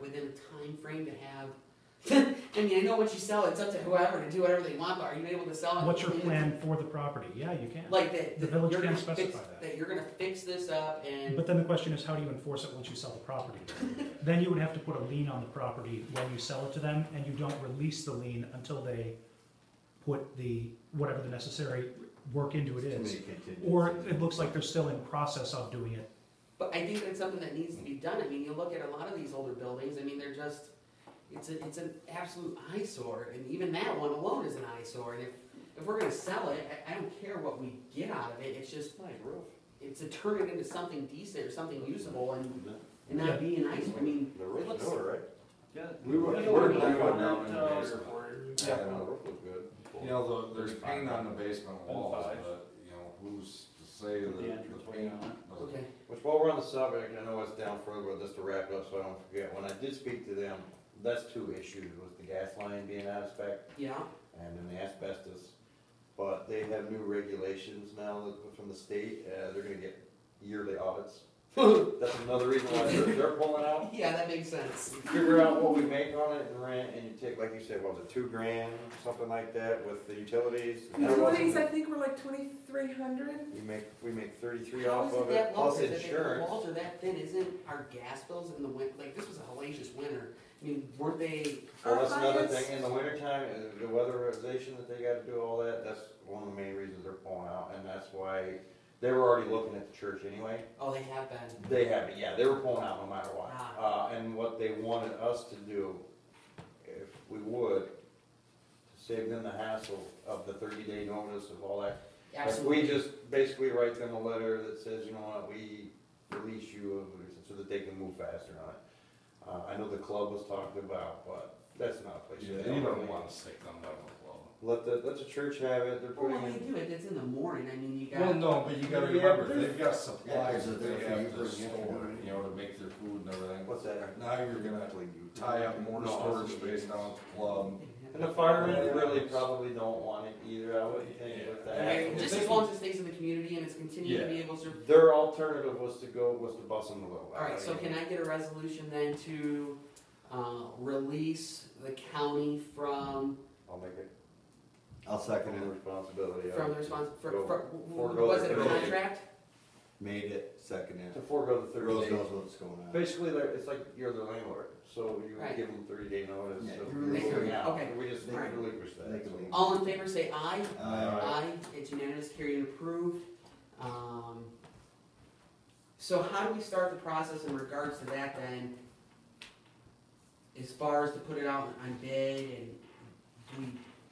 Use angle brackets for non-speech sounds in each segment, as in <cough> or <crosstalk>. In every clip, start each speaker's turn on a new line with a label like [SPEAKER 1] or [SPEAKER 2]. [SPEAKER 1] within a time frame to have, <laughs> I mean, I know what you sell, it's up to whoever to do whatever they want, but are you able to sell it?
[SPEAKER 2] What's your
[SPEAKER 1] within-
[SPEAKER 2] plan for the property? Yeah, you can.
[SPEAKER 1] Like that.
[SPEAKER 2] The
[SPEAKER 1] that
[SPEAKER 2] village
[SPEAKER 1] you're
[SPEAKER 2] can
[SPEAKER 1] gonna fix-
[SPEAKER 2] specify that.
[SPEAKER 1] That you're gonna fix this up and,
[SPEAKER 2] But then the question is, how do you enforce it once you sell
[SPEAKER 1] <laughs>
[SPEAKER 2] the property? Then you would have to put a lien on the property when you sell it to them, and you don't release the lien until they put the, whatever the necessary work into it
[SPEAKER 3] Too
[SPEAKER 2] is.
[SPEAKER 3] many contingencies.
[SPEAKER 2] Or it looks like they're still in process of doing it.
[SPEAKER 1] but I think that's something that needs to be done, I mean, you look at a lot of these older buildings, I mean, they're just, it's a, it's an absolute eyesore, and even that one alone is an eyesore, and if, if we're gonna sell it, I, I don't care what we get out of it, it's just,
[SPEAKER 3] Like roof.
[SPEAKER 1] it's to turn it into something decent or something usable and,
[SPEAKER 3] The-
[SPEAKER 1] and
[SPEAKER 2] Yeah.
[SPEAKER 1] not be an eyesore, I mean,
[SPEAKER 3] The
[SPEAKER 1] it
[SPEAKER 3] roof
[SPEAKER 1] looks-
[SPEAKER 3] newer, right?
[SPEAKER 4] Yeah.
[SPEAKER 3] We were-
[SPEAKER 4] Yeah,
[SPEAKER 3] we were back on
[SPEAKER 4] uh,
[SPEAKER 3] that in the basement.
[SPEAKER 4] reported.
[SPEAKER 3] Yeah, the roof was good.
[SPEAKER 5] You know, the, there's paint on the basement
[SPEAKER 4] Been
[SPEAKER 5] walls,
[SPEAKER 4] five.
[SPEAKER 5] but, you know, who's to say that
[SPEAKER 4] The entrance
[SPEAKER 5] the
[SPEAKER 4] way
[SPEAKER 5] paint
[SPEAKER 4] on
[SPEAKER 5] doesn't
[SPEAKER 1] okay,
[SPEAKER 3] Which, while we're on the subject, I know it's down further, but just to wrap it up so I don't forget, when I did speak to them, that's two issues, was the gas line being out of spec
[SPEAKER 1] yeah, <laughs>
[SPEAKER 3] and then the asbestos. But they have new regulations now that- from the state, uh, they're gonna get yearly audits. That's another reason why they're, they're pulling out.
[SPEAKER 1] yeah, that makes sense.
[SPEAKER 3] Figure out what we make on it and rent, and you take, like you said, what was it, two grand, something like that with the utilities? That wasn't-
[SPEAKER 6] Utilities, I think were like twenty-three hundred.
[SPEAKER 3] We make, we make thirty-three
[SPEAKER 1] How
[SPEAKER 3] off
[SPEAKER 1] is
[SPEAKER 3] of it,
[SPEAKER 1] that low?
[SPEAKER 3] plus
[SPEAKER 1] Is it that The
[SPEAKER 3] insurance.
[SPEAKER 1] walls are that thin, isn't our gas bills in the win, like, this was a hellacious winter, I mean, weren't they,
[SPEAKER 3] Well, that's
[SPEAKER 6] Our
[SPEAKER 3] another
[SPEAKER 6] highest-
[SPEAKER 3] thing, in the wintertime, uh, the weatherization that they gotta do, all that, that's one of the main reasons they're pulling out, and that's why they were already looking at the church anyway.
[SPEAKER 1] oh, they have been,
[SPEAKER 3] They haven't, yeah, they were pulling out no matter what.
[SPEAKER 1] Ah.
[SPEAKER 3] Uh, and what they wanted us to do, if we would, to save them the hassle of the thirty day notice of all that. If
[SPEAKER 1] absolutely.
[SPEAKER 3] we just basically write them a letter that says, you know what, we release you of- so that they can move faster on it. Uh, I know the club was talked about, but that's not a place.
[SPEAKER 5] Yeah,
[SPEAKER 3] that
[SPEAKER 5] you
[SPEAKER 3] don't
[SPEAKER 5] don't
[SPEAKER 3] really-
[SPEAKER 5] wanna stick them down the wall.
[SPEAKER 3] Let the, let the church have it, they're
[SPEAKER 1] Well,
[SPEAKER 3] putting
[SPEAKER 1] when they
[SPEAKER 3] in,
[SPEAKER 1] do it, it's in the morning, I mean, you
[SPEAKER 5] Well,
[SPEAKER 1] got,
[SPEAKER 5] no, but you gotta
[SPEAKER 3] Yeah,
[SPEAKER 5] remember,
[SPEAKER 3] there's-
[SPEAKER 5] they've got supplies
[SPEAKER 3] Yeah,
[SPEAKER 5] that they
[SPEAKER 3] yeah,
[SPEAKER 5] have to
[SPEAKER 3] there's-
[SPEAKER 5] store, you know, to make their food and everything.
[SPEAKER 3] what's that?
[SPEAKER 5] Now you're gonna tie up more
[SPEAKER 3] No,
[SPEAKER 5] storage
[SPEAKER 3] it's-
[SPEAKER 5] space down at the club.
[SPEAKER 3] And the firemen really probably don't want it either, I would think with
[SPEAKER 5] Yeah.
[SPEAKER 3] the
[SPEAKER 1] I
[SPEAKER 3] hassle.
[SPEAKER 1] mean, just as long as it stays in the community and it's continued to be able to,
[SPEAKER 3] Their alternative was to go, was to bust them a little.
[SPEAKER 1] alright, so can I get a resolution then to, uh, release the county from
[SPEAKER 3] I'll make it,
[SPEAKER 7] I'll
[SPEAKER 3] from
[SPEAKER 7] second
[SPEAKER 3] the
[SPEAKER 7] it.
[SPEAKER 3] responsibility. of-
[SPEAKER 1] From the response, for,
[SPEAKER 3] Go.
[SPEAKER 1] for,
[SPEAKER 3] Forego
[SPEAKER 1] was it a
[SPEAKER 3] the penalty.
[SPEAKER 1] contract?
[SPEAKER 7] Made it, second
[SPEAKER 3] To
[SPEAKER 7] it.
[SPEAKER 3] forego the
[SPEAKER 7] The
[SPEAKER 3] thirty
[SPEAKER 7] Rose
[SPEAKER 3] days.
[SPEAKER 7] knows what's going on.
[SPEAKER 3] Basically, they're- it's like you're the landlord, so you
[SPEAKER 1] Right.
[SPEAKER 3] give them thirty day notice.
[SPEAKER 7] Yeah,
[SPEAKER 3] so
[SPEAKER 7] you
[SPEAKER 3] we're
[SPEAKER 7] release
[SPEAKER 3] moving
[SPEAKER 1] them.
[SPEAKER 3] out.
[SPEAKER 1] Okay.
[SPEAKER 3] We just
[SPEAKER 7] They can-
[SPEAKER 3] relinquish
[SPEAKER 7] they
[SPEAKER 3] that.
[SPEAKER 7] can
[SPEAKER 3] so.
[SPEAKER 7] leave.
[SPEAKER 1] All in favor, say aye.
[SPEAKER 7] Uh,
[SPEAKER 1] Aye, it's unanimous, carried and approved. Um, so how do we start the process in regards to that then? As far as to put it out on bid and do we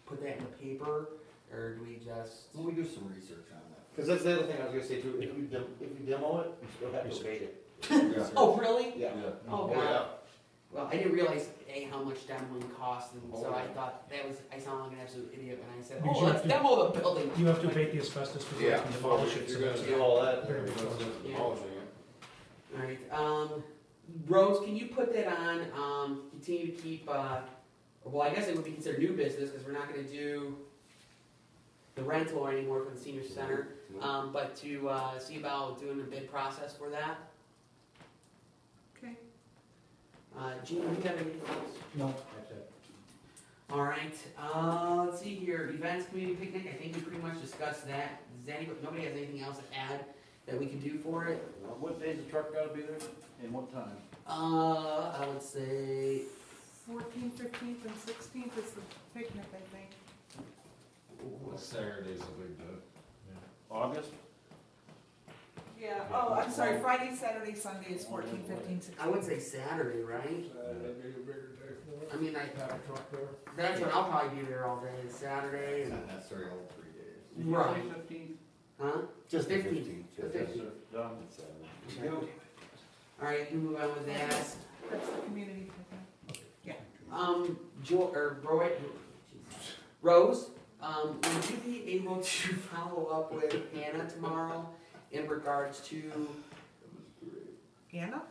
[SPEAKER 1] put that in the paper or do we just?
[SPEAKER 7] Well, we do some research on
[SPEAKER 3] Cause that's the other thing I was gonna say too, if you dem if you demo it, you still have to abate it.
[SPEAKER 7] that.
[SPEAKER 1] Oh, really?
[SPEAKER 3] <laughs> Yeah.
[SPEAKER 1] Oh,
[SPEAKER 5] yeah.
[SPEAKER 1] God. Well, I didn't realize, A, how much demoing costs and so I
[SPEAKER 3] Oh.
[SPEAKER 1] thought that was, I sound like an absolute idiot when I said,
[SPEAKER 2] Because
[SPEAKER 1] oh,
[SPEAKER 2] you
[SPEAKER 1] let's
[SPEAKER 2] have to-
[SPEAKER 1] demo the building.
[SPEAKER 2] You have to abate the asbestos before you can demolish it.
[SPEAKER 5] You're
[SPEAKER 2] so that's-
[SPEAKER 5] gonna
[SPEAKER 3] Do all that,
[SPEAKER 2] Very
[SPEAKER 5] Because
[SPEAKER 2] good.
[SPEAKER 5] of demolishing it.
[SPEAKER 1] Alright, um, Rose, can you put that on, um, continue to keep, uh, well, I guess it would be considered new business, cause we're not gonna do the rental anymore for the senior center, um, but to, uh, see about doing a bid process for that.
[SPEAKER 6] Okay.
[SPEAKER 1] Uh, Gene, you got anything else?
[SPEAKER 2] No,
[SPEAKER 1] Alright, uh, let's see here, events, community picnic, I think we pretty much discussed that, does anybody, nobody has anything else to add that we can do for it?
[SPEAKER 3] What day's the truck gotta be there?
[SPEAKER 4] And what time?
[SPEAKER 1] Uh, I would say
[SPEAKER 6] Fourteenth, fifteenth, and sixteenth is the picnic, I think.
[SPEAKER 5] Saturday's a big day.
[SPEAKER 4] August?
[SPEAKER 6] Yeah, oh, I'm sorry, Friday, Saturday, Sunday is fourteen, fifteen, sixteen.
[SPEAKER 1] I would say Saturday, right?
[SPEAKER 5] That'd
[SPEAKER 4] be a bigger day for
[SPEAKER 1] I mean, like,
[SPEAKER 4] Have a truck there.
[SPEAKER 1] that's when I'll probably be there all day, it's Saturday
[SPEAKER 7] It's
[SPEAKER 1] and,
[SPEAKER 7] not necessarily all three days.
[SPEAKER 1] Right.
[SPEAKER 4] Fifteenth?
[SPEAKER 1] huh?
[SPEAKER 7] Just the
[SPEAKER 1] 15th.
[SPEAKER 7] fifteenth.
[SPEAKER 1] The 15th.
[SPEAKER 4] Done.
[SPEAKER 1] Alright, you move on with that.
[SPEAKER 6] That's the community picnic.
[SPEAKER 1] Um, Jo, or Roy, Rose, um, would you be able to <laughs> follow up with Hannah tomorrow in regards to
[SPEAKER 6] Hannah?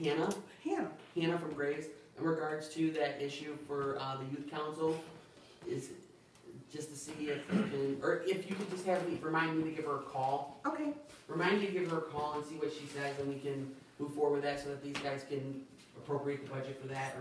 [SPEAKER 1] Hannah,
[SPEAKER 6] Hannah.
[SPEAKER 1] Hannah from Graves, in regards to that issue for, uh, the youth council? Is, just to see if you can, or if you could just have me, remind me to give her a call?
[SPEAKER 6] Okay,
[SPEAKER 1] Remind me to give her a call and see what she says, and we can move forward with that so that these guys can appropriate the budget for that, or